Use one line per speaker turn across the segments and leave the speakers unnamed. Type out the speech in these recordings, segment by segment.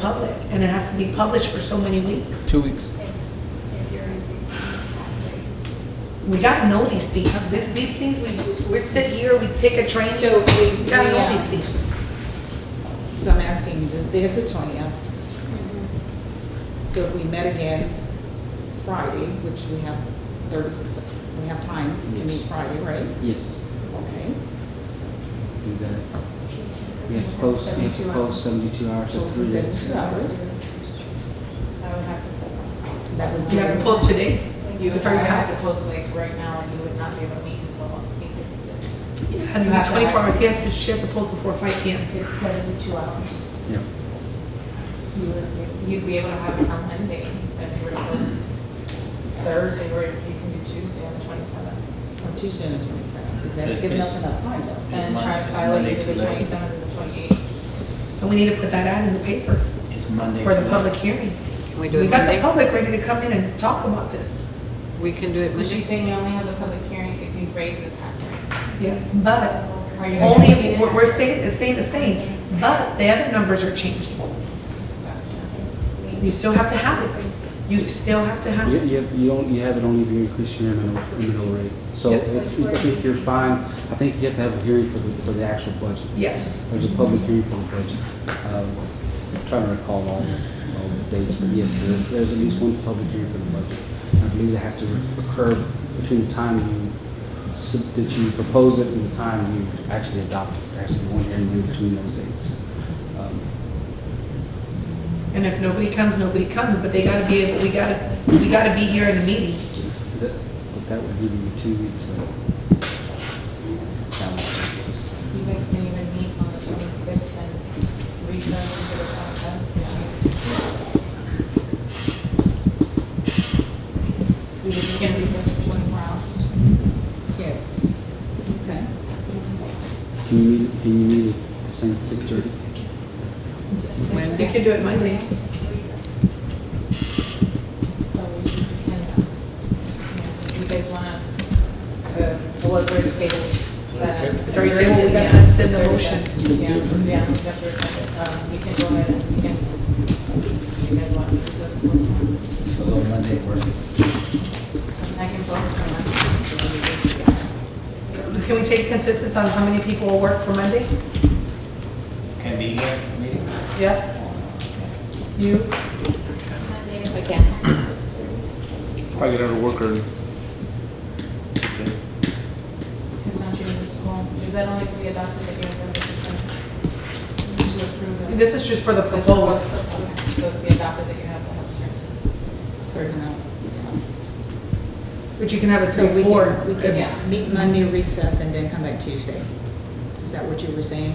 public, and it has to be published for so many weeks.
Two weeks.
if, if you're increasing the tax rate.
We gotta know these things, this, these things, we, we sit here, we take a train,
So we,
we
we,
gotta know
uh,
these things.
so I'm asking, this day is the twentieth, so if we met again Friday, which we have thirty-six, we have time to meet
Yes.
Friday, right?
Yes,
Okay.
we got it. We have to post, we have to post seventy-two hours, that's
Post in
three days.
seventy-two hours.
I would have to.
That was.
You have to post today.
You would
That's all you
have
have.
to post like right now, and you would not be able to meet until eight fifty-six.
It has to
You
be
have to
twenty-four hours,
ask.
he has to, she has to post before five P M.
It's seventy-two hours.
Yeah.
You would, you'd be able to have it on Monday if you were to post Thursday, or you can do Tuesday on the twenty-seventh.
On Tuesday and the twenty-seventh, that's
Just-
giving us
just-
enough time though.
Is
And
Mon-
try to
is
file it
Monday
either
too
the
late?
twenty-seventh or the twenty-eighth.
And we need to put that out in the paper
It's Monday.
for the
tonight.
public hearing.
Can we do
We
it
got the
Monday?
public ready to come in and talk about this,
We can do it
But she's
Monday.
saying you only have the public hearing if you raise the tax rate.
yes, but
Are you-
only, if we're, we're staying, it's staying the same, but the other numbers are changing. You still have to have it, you still have to have
You,
it.
you, have- you don't, you have it only if you increase your minimum, minimum rate. So
Yes.
it's, I think you're fine, I think you have to have a hearing for the, for the actual budget.
Yes,
There's a public hearing for the budget. Um, I'm trying to recall all, the- all the dates, but yes, there's, there's at least one public hearing for the budget. I believe that has to occur between the time you, sub- that you propose it and the time you actually adopt it. There has to be one hearing due between those dates. Um,
and if nobody comes, nobody comes, but they gotta be able, we gotta, we gotta be here in the meeting.
That, but that would give you two weeks of. calendar.
You guys can even meet on the twenty-sixth and recess until the twenty-seventh. We can recess for twenty-four hours.
Yes, okay.
Can you meet, can you meet at the same six thirty?
They
Monday.
can do it Monday.
So we can, uh, yeah, You guys wanna, uh, well, we're the table.
It's already tabled, we gotta rescind the motion.
Yeah, yeah, we have to rescind it. Um, you can go ahead and you can, if you guys want to recess. for one.
So Monday work.
I can focus on that.
Can we take consensus on how many people will work for Monday?
Can be here, meeting?
Yeah. You?
Again.
Probably get out of work early.
Because don't you need the school? Is that only if we adopt it again for the system? To approve it?
This is just for the
Okay,
proposal.
So if we adopt it, then you have to have certain.
Certain amount.
But you can have it
So we
through four.
can, we
Yeah.
can meet Monday recess and then come back Tuesday. Is that what you were saying?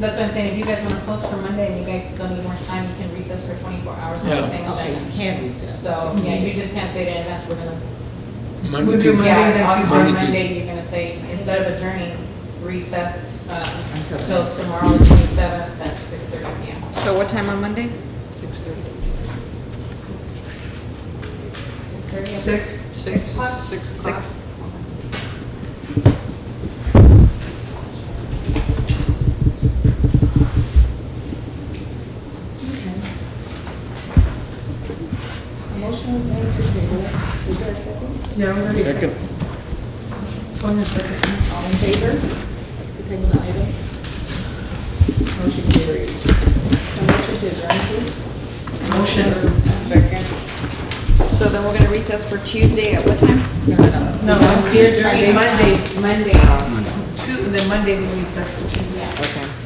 That's what I'm saying, if you guys want to post for Monday and you guys still need more time, you can recess for 24 hours on the
Yeah.
same
Okay, you
agenda.
can recess.
So, yeah, you just can't say to advance, we're gonna.
We'll
Monday,
do
Tuesday.
Monday,
Yeah,
then
on-
Tuesday.
Monday,
On
Tuesday.
Monday, you're gonna say, instead of adjourning, recess uh,
Until
until
then.
tomorrow, the 27th, at 6:30 PM.
So what time on Monday?
Six thirty.
6:30?
Six.
o'clock?
Six
Six.
o'clock.
A motion was made to table. Is there a second?
Yeah, I'm ready.
Second.
It's on the second.
All in favor to table the item? Motion carries. A motion to adjourn, please.
Motion.
So then we're gonna recess for Tuesday at what time?
No, no, no.
No,
We're adjourning.
Monday, Monday, two, and then Monday we recess for two.
Yeah.
Okay.